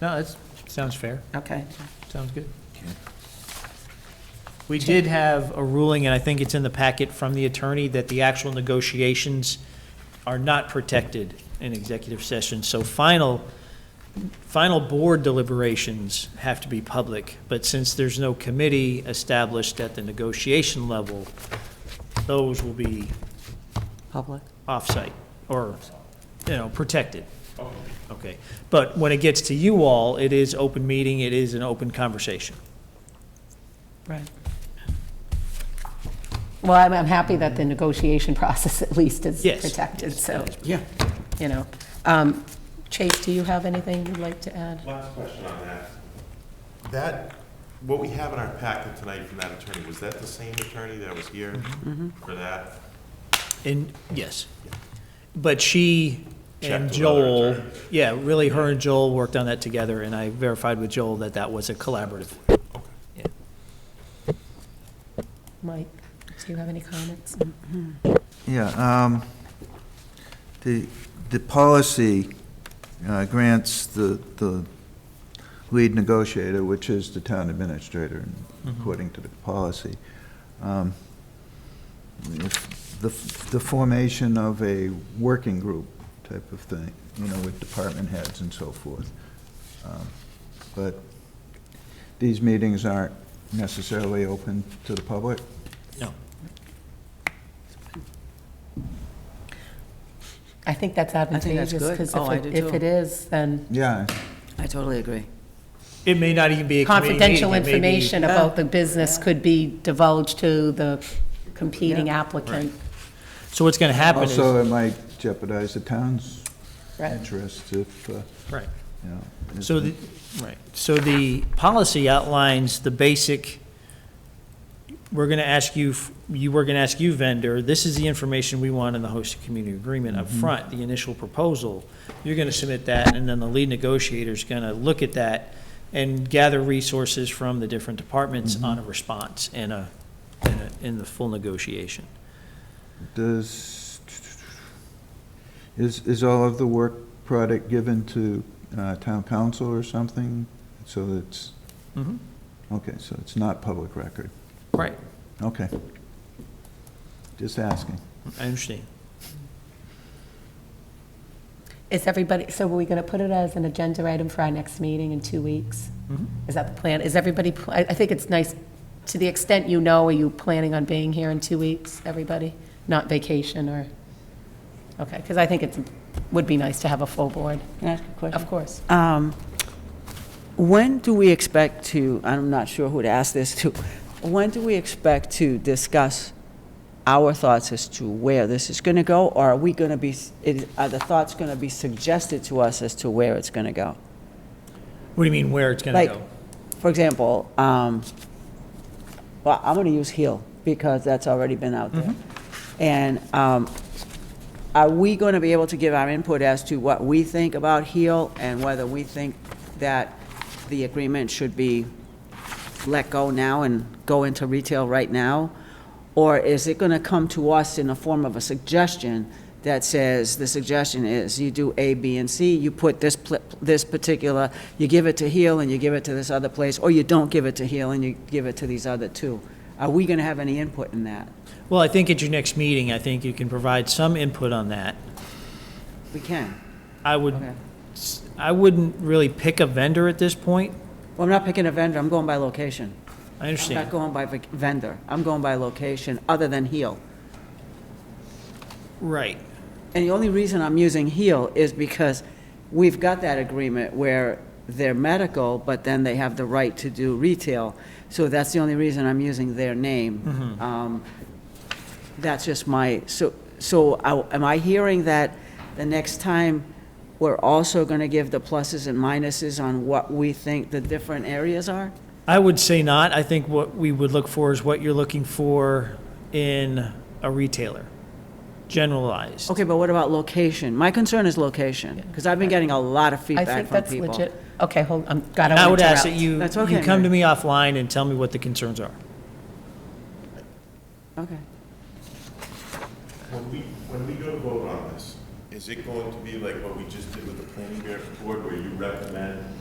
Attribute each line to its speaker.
Speaker 1: No, that's, sounds fair,
Speaker 2: Okay.
Speaker 1: sounds good. We did have a ruling, and I think it's in the packet from the attorney, that the actual negotiations are not protected in executive session. So final, final board deliberations have to be public. But since there's no committee established at the negotiation level, those will be
Speaker 2: Public?
Speaker 1: off-site or, you know, protected. Okay. But when it gets to you all, it is open meeting, it is an open conversation.
Speaker 2: Right. Well, I'm, I'm happy that the negotiation process at least is
Speaker 1: Yes.
Speaker 2: protected, so,
Speaker 3: Yeah.
Speaker 2: you know. Um, Chase, do you have anything you'd like to add?
Speaker 4: Last question on that. That, what we have in our packet tonight from that attorney, was that the same attorney that was here for that?
Speaker 1: And, yes. But she and
Speaker 4: Checked with other
Speaker 1: Joel,
Speaker 4: attorneys.
Speaker 1: yeah, really, her and Joel worked on that together, and I verified with Joel that that was a collaborative.
Speaker 2: Mike, do you have any comments?
Speaker 5: Yeah, um, the, the policy uh, grants the, the lead negotiator, which is the town administrator, according to the policy. Um, if The, the formation of a working group type of thing, you know, with department heads and so forth. Um, But these meetings aren't necessarily open to the public?
Speaker 1: No.
Speaker 2: I think that's
Speaker 3: that's
Speaker 2: advantageous,
Speaker 3: good.
Speaker 2: because
Speaker 3: Oh, I
Speaker 2: if,
Speaker 3: do
Speaker 2: it- if
Speaker 3: too.
Speaker 2: it is, then
Speaker 5: Yeah,
Speaker 3: I totally agree.
Speaker 1: It may not even be a committee meeting,
Speaker 2: confidential
Speaker 1: it may be-
Speaker 2: information about the business could be divulged to the competing applicant.
Speaker 1: So what's going to happen is,
Speaker 5: Also, it might jeopardize the town's
Speaker 2: Right.
Speaker 5: interest if, uh,
Speaker 1: right.
Speaker 5: you know. if-
Speaker 1: So, the- right, so the policy outlines the basic, we're going to ask you, f- you, we're going to ask you vendor, this is the information we want in the hosted community agreement up front, the initial proposal. You're going to submit that, and then the lead negotiator's going to look at that and gather resources from the different departments on a response and a, and a- in the full negotiation.
Speaker 5: Does, is, is all of the work product given to uh, town council or something? So it's,
Speaker 1: Mhm.
Speaker 5: okay, so it's not public record.
Speaker 1: Right,
Speaker 5: Okay. Just asking.
Speaker 1: I understand.
Speaker 2: Is everybody, so are we going to put it as an agenda item for our next meeting in two weeks?
Speaker 1: Mm-hmm.
Speaker 2: Is that the plan? Is everybody, pl- I, I think it's nice, to the extent you know, are you planning on being here in two weeks, everybody? Not vacation or, okay, because I think it's, would be nice to have a full board,
Speaker 3: Can I ask a question?
Speaker 2: of course.
Speaker 3: Um, When do we expect to, I'm not sure who to ask this to, when do we expect to discuss our thoughts as to where this is going to go? Or are we going to be, is- are the thoughts going to be suggested to us as to where it's going to go?
Speaker 1: What do you mean, where it's going to
Speaker 3: Like,
Speaker 1: go?
Speaker 3: for example, um, well, I'm going to use heel because that's already been out there. And um, are we going to be able to give our input as to what we think about heel and whether we think that the agreement should be let go now and go into retail right now? Or is it going to come to us in the form of a suggestion that says, the suggestion is you do A, B, and C, you put this, pl- this particular, you give it to Heel and you give it to this other place, or you don't give it to Heel and you give it to these other two? Are we going to have any input in that?
Speaker 1: Well, I think at your next meeting, I think you can provide some input on that.
Speaker 3: We can.
Speaker 1: I would,
Speaker 3: Okay.
Speaker 1: s- I wouldn't really pick a vendor at this point.
Speaker 3: Well, I'm not picking a vendor, I'm going by location.
Speaker 1: I
Speaker 3: I'm not
Speaker 1: understand.
Speaker 3: going by vac- vendor, I'm going by location, other than Heel.
Speaker 1: Right.
Speaker 3: And the only reason I'm using HEAL is because we've got that agreement where they're medical, but then they have the right to do retail. So that's the only reason I'm using their name. Um, That's just my, so, so I- am I hearing that the next time, we're also going to give the pluses and minuses on what we think the different areas are?
Speaker 1: I would say not. I think what we would look for is what you're looking for in a retailer, generalized.
Speaker 3: Okay, but what about location? My concern is location, because I've been getting a lot of
Speaker 2: I
Speaker 3: feedback from
Speaker 2: think
Speaker 3: people.
Speaker 2: that's legit. Okay, hold, I'm, God, I
Speaker 1: I
Speaker 2: want
Speaker 1: would
Speaker 2: to
Speaker 1: ask
Speaker 2: interrupt.
Speaker 1: that you,
Speaker 3: That's
Speaker 1: you
Speaker 3: okay,
Speaker 1: come to
Speaker 3: Mary.
Speaker 1: me offline and tell me what the concerns are.
Speaker 3: Okay.
Speaker 4: When we, when we go to vote on this, is it going to be like what we just did with the planning board where you recommend